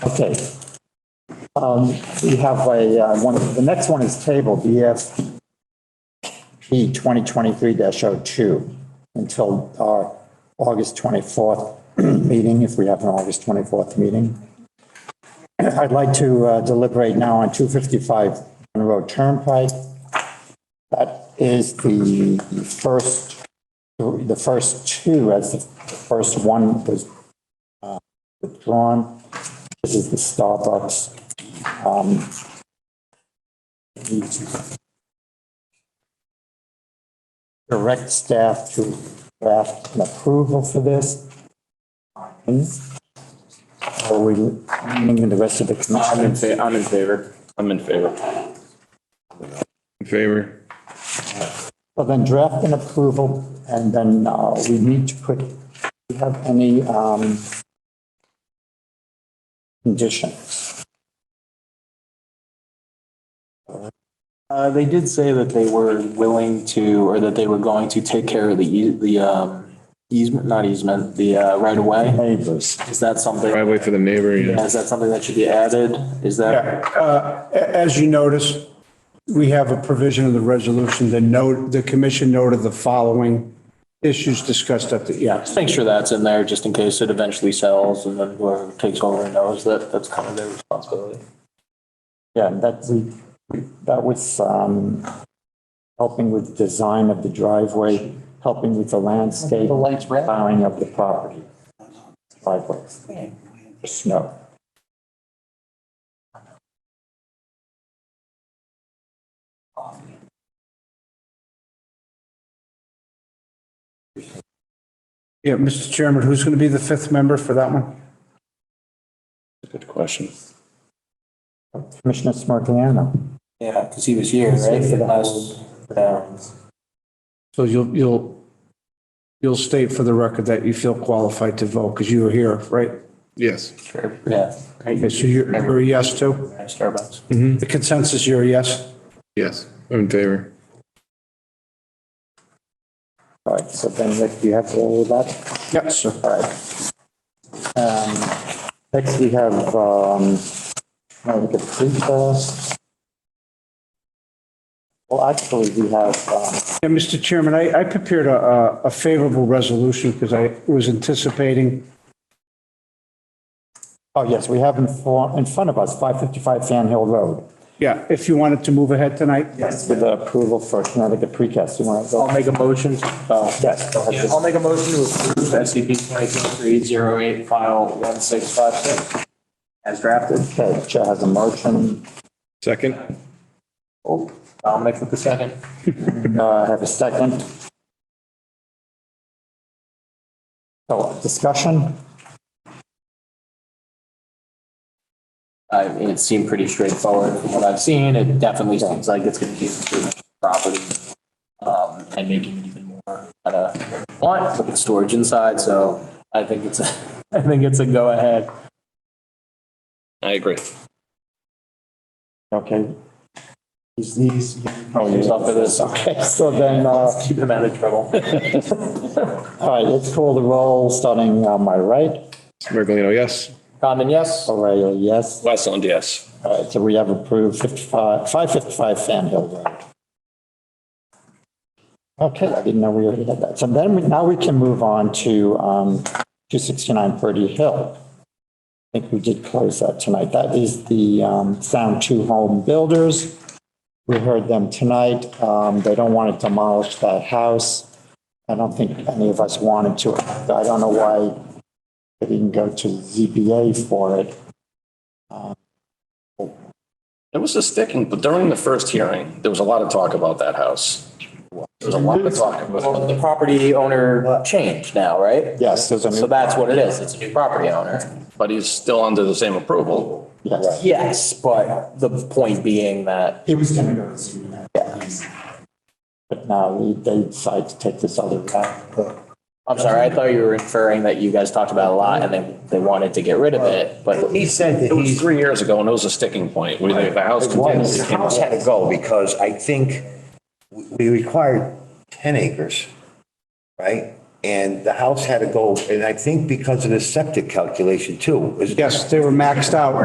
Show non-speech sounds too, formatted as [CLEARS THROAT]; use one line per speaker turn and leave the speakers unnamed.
Okay. Um, we have a, uh, one, the next one is table BF P twenty twenty-three 2 until our August twenty-fourth [CLEARS THROAT] meeting, if we have an August twenty-fourth meeting. I'd like to uh, deliberate now on two fifty-five Monroe Turnpike. That is the first, the first two, as the first one was uh, withdrawn. This is the Starbucks. um, we Direct staff to draft an approval for this. Or we, meaning the rest of the
I'm in
commission.
fa- I'm in favor. I'm in favor.
In favor?
Well, then draft an approval and then uh, we need to put, do you have any um, conditions?
Uh, they did say that they were willing to, or that they were going to take care of the, ea- the, um, easement, not easement, the, uh, right of way.
Neighbors.
Is that something,
Driveway for the neighbor, yeah.
is that something that should be added? Is that,
Yeah, uh, a- As you notice, we have a provision of the resolution, the note, the commission noted the following issues discussed at the, yeah.
just make sure that's in there just in case it eventually sells and then whoever takes over knows that that's kind of their responsibility.
Yeah, that we, that was, um, helping with the design of the driveway, helping with the landscape, plowing of the property. Driveways. Snow.
Yeah, Mr. Chairman, who's going to be the fifth member for that one?
Good question.
Commissioner Smirgliano.
Yeah, because he was here, right? For the last, um,
So you'll, you'll, you'll state for the record that you feel qualified to vote because you were here, right?
Yes.
yeah,
Okay, so you're you're a yes to?
Starbucks.
The consensus, you're a yes?
Yes, I'm in favor.
All right, so then Rick, do you have all of that?
Yes, sir.
All right. Um, next we have, um, Monica Frita. Well, actually, we have, um,
Yeah, Mr. Chairman, I, I prepared a, a- a favorable resolution because I was anticipating
Oh, yes, we have in for, in front of us, 555 Fan Hill Road.
Yeah, if you wanted to move ahead tonight?
Yes. With the approval for Connecticut Precast. You want to go?
I'll make a motion, to- oh.
Yes. go ahead.
I'll make a motion to approve SCP twenty twenty-three zero eight file one six five six as drafted.
Okay, Chair has a motion.
Second?
Oh, Dominic with the second.
Uh, Have a second. So discussion?
I mean, Uh, it seemed pretty straightforward from what I've seen. It definitely seems like it's gonna be improving the property. Um, and making it even more, uh, want with the storage inside, so I think it's, a [LAUGHS] I think it's a go ahead.
I agree.
Okay. He's, he's.
Oh,
yeah.
Up for this, okay,
So then, uh, all
keep them out of trouble.
right, let's call the roll, starting on my right.
Mergelino, yes.
Condon, yes?
O'Reilly, yes.
Westland, yes.
All right, so we have approved 55, 555 Fan Hill Road. Okay, I didn't know we already had that. So then, we- now we can move on to um, 269 Purdy Hill. I think we did close that tonight. That is the um, Sound Two Home Builders. We heard them tonight. Um, They don't want to demolish that house. I don't think any of us wanted to. I don't know why they didn't go to ZBA for it.
It was a sticking, but during the first hearing, there was a lot of talk about that house. There was a lot of talk about
Well, the property owner changed now, right?
Yes, there's a new.
So that's what it is. It's a new property owner.
but he's still under the same approval.
Yes.
Yes, but the point being that
It was gonna go to Sweden. But now we- they decide to take this other route.
I'm sorry, I thought you were inferring that you guys talked about it a lot and they, they wanted to get rid of it, but
He said that
It was
he's,
three years ago and it was a sticking point. We, the the house. continues
the
to come
house had to go because I think we required 10 acres, right? And the house had to go, and I think because of the septic calculation too. was-
Yes, they were maxed out.